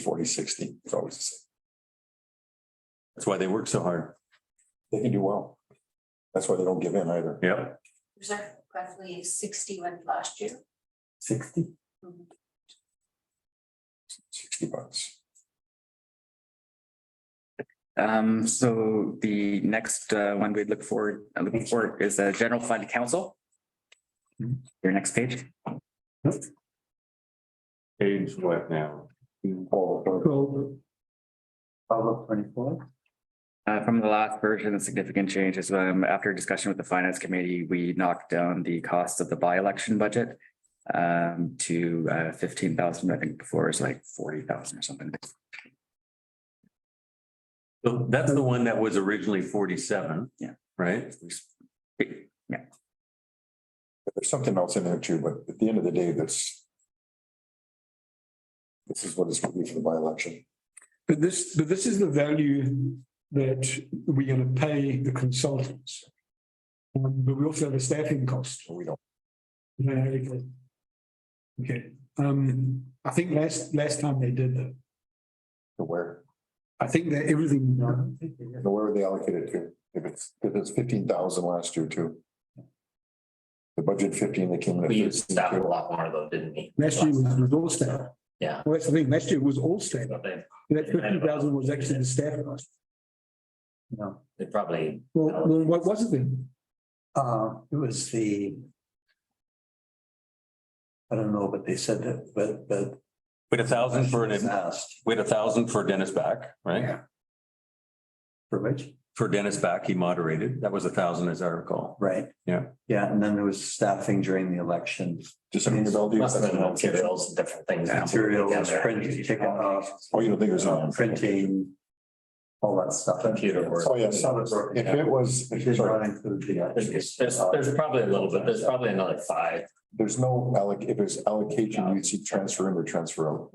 forty, sixty, it's always the same. That's why they work so hard. They can do well. That's why they don't give in either. Yeah. There's like roughly sixty-one last year. Sixty? Mhm. Sixty bucks. Um, so the next uh, one we look forward, uh, looking forward is the general fund council. Your next page, Page what now? Twelve. Twelve of twenty-four. uh, from the last version, the significant change is um, after discussion with the finance committee, we knocked down the cost of the by-election budget. Um, to uh, fifteen thousand, I think before it was like forty thousand or something. So that's the one that was originally forty-seven. Yeah. Right? There's something else in there too, but at the end of the day, that's. This is what is going to be for the by-election. But this, but this is the value that we're gonna pay the consultants. Um, but we also have a staffing cost. We don't, Yeah, okay. Okay, um, I think last, last time they did that, know where, I think that everything. know where they allocated to, if it's, if it's fifteen thousand last year too. The budget fifteen, they came in. at We used 15, staff a too. lot more though, didn't we? Last year was was all staff. Yeah. Well, that's the thing, last year was all staff. But They That fifty thousand was actually the staff cost. No, they probably, Well, well, what was it then? uh, it was the. I don't know, but they said that, but, but. With a thousand for Was an, Asked with a thousand for Dennis back, right? for which, For Dennis back, he moderated. That was a thousand as I recall. right? Yeah. Yeah, and then there was staffing during the election, Just under the belt. must have been materials and different things. that we put materials, together. printing, ticket uh, off, Oh, you don't think it was on? printing. All that stuff. Computer work. Oh, yeah, Some so of it broken if down. it was, It did sorry, not include the. There's, there's there's probably a little bit, there's probably another five. there's no alloc, if it's allocation, you'd see transfer in or transfer out.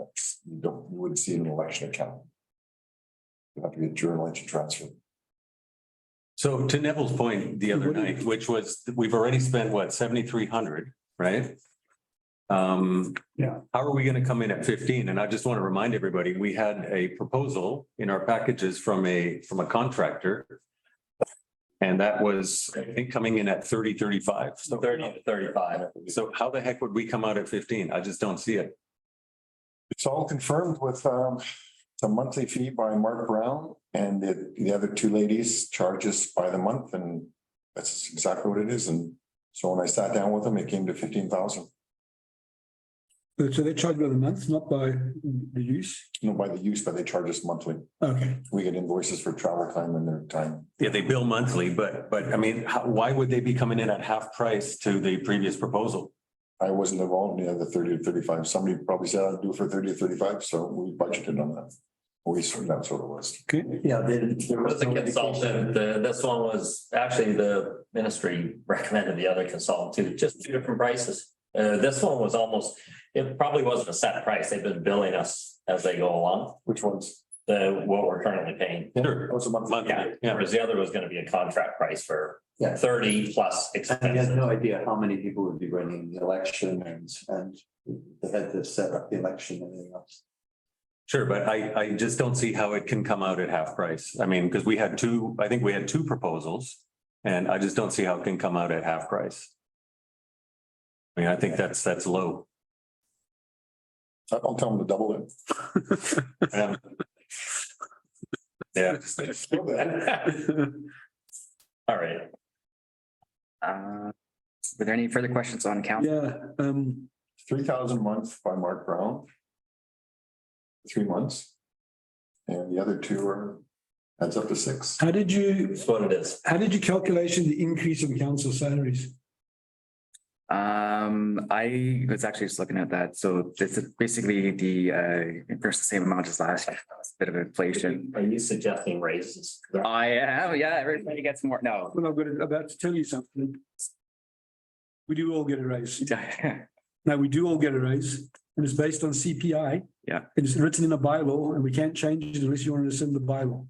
You don't, you wouldn't see it in an election account. You have to be a journal entry transfer. So to Neville's point the other night, which was, we've already spent what, seventy-three hundred, right? Um. Yeah. How are we gonna come in at fifteen? And I just want to remind everybody, we had a proposal in our packages from a, from a contractor. And that was, I think, coming in at thirty, thirty-five. So Thirty to thirty-five. So how the heck would we come out at fifteen? I just don't see it. It's all confirmed with um the monthly fee by Mark Brown and the the other two ladies charges by the month and that's exactly what it is. And so when I sat down with them, it came to fifteen thousand, Uh, So they charge by the month, not by the use? you know, by the use, but they charge us monthly. Okay, We get invoices for travel time and their time. Yeah, they bill monthly, but, but I mean, how, why would they be coming in at half price to the previous proposal? I wasn't involved in the other thirty to thirty-five. Somebody probably said I'd do it for thirty to thirty-five, so we budgeted on that. We, that's what it was. okay. Yeah, they didn't. It was the consultant, the, this one was actually the ministry recommended the other consultant too, just two different prices. Uh, this one was almost, it probably wasn't a set price. They've been billing us as they go along, Which ones? the, what we're currently paying. Sure. That was a monthly. Monthly, Yeah, yeah. whereas the other was gonna be a contract price for Yeah. thirty plus And he expenses. had no idea how many people would be running the election and, and they had to set up the election and everything else. Sure, but I, I just don't see how it can come out at half price. I mean, because we had two, I think we had two proposals. And I just don't see how it can come out at half price. I mean, I think that's, that's low. I'll tell them to double it. Um, Yeah, All right, Uh, were there any further questions on council? Yeah, um, three thousand a month by Mark Brown. Three months. And the other two are, adds up to six. how did you, that's what it is. how did you calculation the increase in council salaries? Um, I was actually just looking at that. So this is basically the, uh, there's the same amount as last year, It's a bit of inflation. Are you suggesting raises? I am, yeah, everybody gets more, no. Well, I've got, to- about to tell you something. We do all get a raise. Now, we do all get a raise and it's based on CPI. Yeah. And It's written in the bylaw and we can't change it unless you want to rescind the bylaw.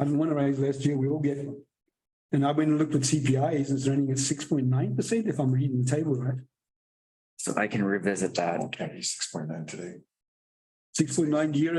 I didn't want to raise last year, we all get one. And I went and looked at CPIs, it's running at six point nine percent if I'm reading the table right. So I can revisit that. Can't be six point nine today. Six point nine year